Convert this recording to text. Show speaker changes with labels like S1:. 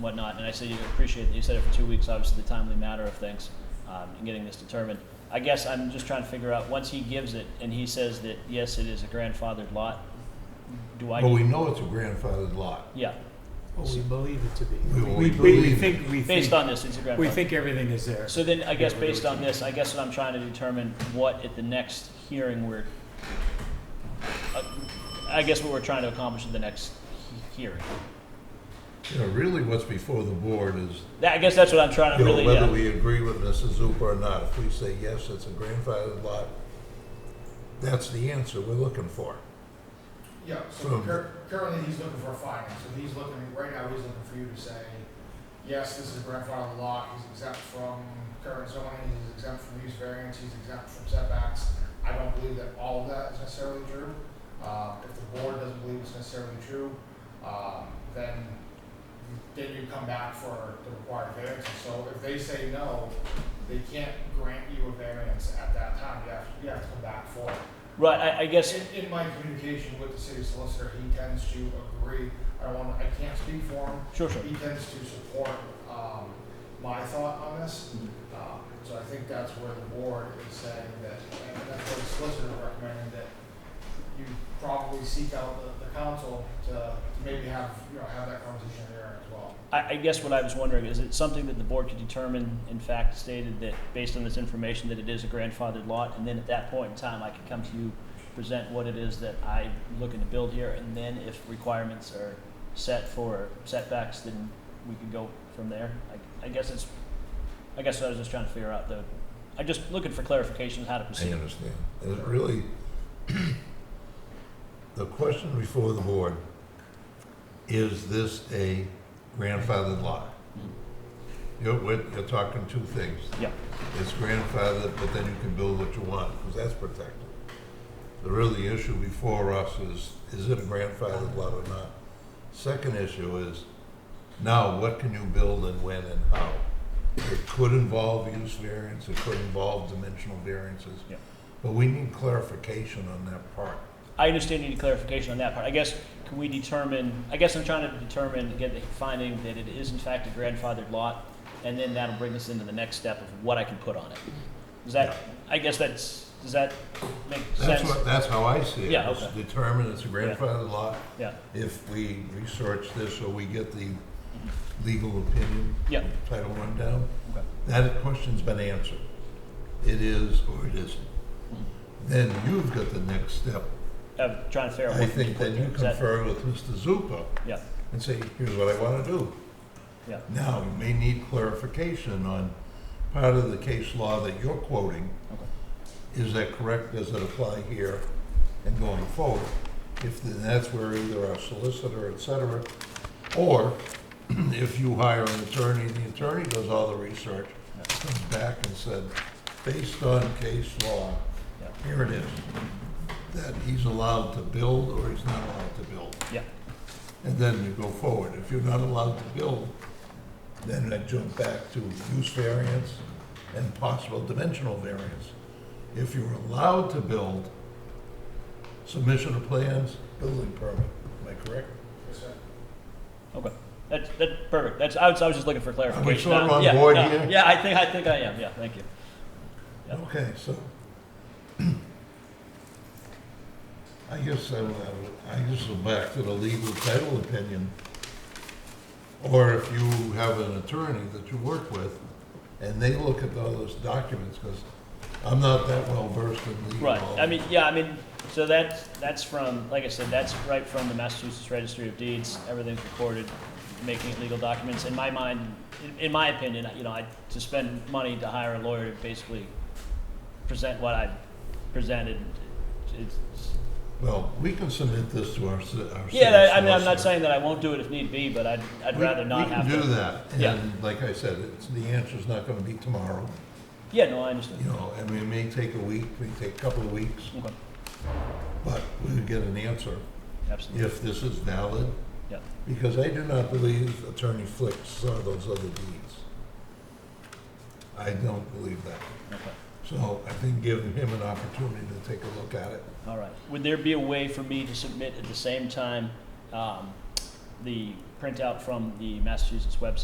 S1: whatnot, and I said you appreciate that you said it for two weeks, obviously the timely matter of things, um, and getting this determined. I guess I'm just trying to figure out, once he gives it and he says that, yes, it is a grandfathered lot, do I?
S2: But we know it's a grandfathered lot.
S1: Yeah,
S3: Well, we believe it to be.
S2: We- we
S3: We
S2: believe
S3: think, we
S1: based
S3: think,
S1: on this, it's a
S3: we
S1: grandfathered.
S3: think everything is there.
S1: So then, I guess
S3: Yeah, we do
S1: based
S3: it
S1: on
S3: to-
S1: this, I guess what I'm trying to determine, what at the next hearing we're, uh, I guess what we're trying to accomplish at the next he- hearing.
S2: You know, really what's before the board is,
S1: That, I guess that's what I'm trying to
S2: you know,
S1: really, uh,
S2: whether
S1: yeah.
S2: we agree with Mrs. Zupa or not. If we say, yes, it's a grandfathered lot, that's the answer we're looking for.
S4: Yeah, so
S2: From-
S4: cur- currently he's looking for a finding, so he's looking, right now he's looking for you to say, yes, this is a grandfather lot, he's exempt from current zoning, he's exempt from use variance, he's exempt from setbacks. I don't believe that all of that is necessarily true. Um, if the board doesn't believe it's necessarily true, um, then, then you come back for the required variance. So if they say no, they can't grant you a variance at that time, you have, you have to come back for it.
S1: Right, I, I guess,
S4: In, in my communication with the city solicitor, he tends to agree, I don't want, I can't speak for him,
S1: sure, sure.
S4: but he tends to support, um, my thought on this. Um, so I think that's where the board is saying that, and that's what the solicitor recommended, that you probably seek out the, the council to, to maybe have, you know, have that conversation there as well.
S1: I, I guess what I was wondering, is it something that the board could determine, in fact stated that, based on this information, that it is a grandfathered lot, and then at that point in time, I could come to you, present what it is that I'm looking to build here, and then if requirements are set for setbacks, then we could go from there? I, I guess it's, I guess I was just trying to figure out the, I'm just looking for clarification on how to
S2: I
S1: proceed.
S2: understand. And it really, the question before the board, is this a grandfathered lot? You're, we're- you're talking two things.
S1: Yeah.
S2: It's grandfathered, but then you can build what you want, because that's protected. The really issue before us is, is it a grandfathered lot or not? Second issue is, now what can you build and when and how? It could involve use variance, it could involve dimensional variances.
S1: Yeah.
S2: But we need clarification on that part.
S1: I understand you need clarification on that part. I guess, can we determine, I guess I'm trying to determine, get the finding that it is in fact a grandfathered lot, and then that'll bring us into the next step of what I can put on it. Does that, I guess that's, does that make
S2: That's
S1: sense?
S2: what, that's how I see it.
S1: Yeah,
S2: It's
S1: okay.
S2: Determine it's a grandfathered lot.
S1: Yeah,
S2: If we research this or we get the legal opinion,
S1: yeah,
S2: Title I down,
S1: okay,
S2: that question's been answered. It is or it isn't. Then you've got the next step.
S1: I'm Uh, trying to figure out
S2: I
S1: what. to
S2: think
S1: put
S2: then
S1: there.
S2: you
S1: Is that-
S2: confer with Mr. Zupa
S1: Yeah,
S2: and say, here's what I want to do.
S1: yeah,
S2: Now, you may need clarification on part of the case law that you're quoting.
S1: okay.
S2: Is that correct? Does it apply here and going forward? If then that's where either our solicitor, et cetera, or if you hire an attorney, the attorney does all the research, comes back and said, based on case law,
S1: Yeah.
S2: here it is, that he's allowed to build or he's not allowed to build.
S1: Yeah.
S2: And then you go forward. If you're not allowed to build, then I jump back to use variance and possible dimensional variance. If you're allowed to build, submission of plans, building permit, am I correct?
S4: Yes, sir.
S1: Okay, that's, that's perfect, that's, I was, I was just looking for clarification.
S2: sort of
S1: Uh,
S2: on
S1: yeah,
S2: board
S1: no,
S2: here?
S1: Yeah, I think, I think I am, yeah, thank you. Yeah.
S2: Okay, so. I guess I, would- I would- I just go back to the legal title opinion. Or if you have an attorney that you work with, and they look at all those documents, because I'm not that well versed in legal.
S1: Right, I mean, yeah, I mean, so that's, that's from, like I said, that's right from the Massachusetts Registry of Deeds, everything's recorded, making it legal documents. In my mind, in- in my opinion, you know, I, to spend money to hire a lawyer to basically present what I presented, it's,
S2: Well, we can submit this to our, s- our.
S1: yeah,
S2: city
S1: I- I mean, I'm not
S2: solicitor.
S1: saying that I won't do it if need be, but I'd, I'd
S2: We-
S1: rather not have to.
S2: We can do that,
S1: Yeah.
S2: and like I said, it's, the answer's not gonna be tomorrow,
S1: Yeah, no, I
S2: you
S1: understand.
S2: know, I mean, it may take a week, may take a couple of weeks,
S1: Okay,
S2: but we'll get an answer.
S1: absolutely,
S2: if this is valid,
S1: yeah,
S2: because I do not believe Attorney Flick saw those other deeds. I don't believe that.
S1: okay.
S2: So I think giving him an opportunity to take a look at it.
S1: All right. Would there be a way for me to submit at the same time um, the printout from the Massachusetts website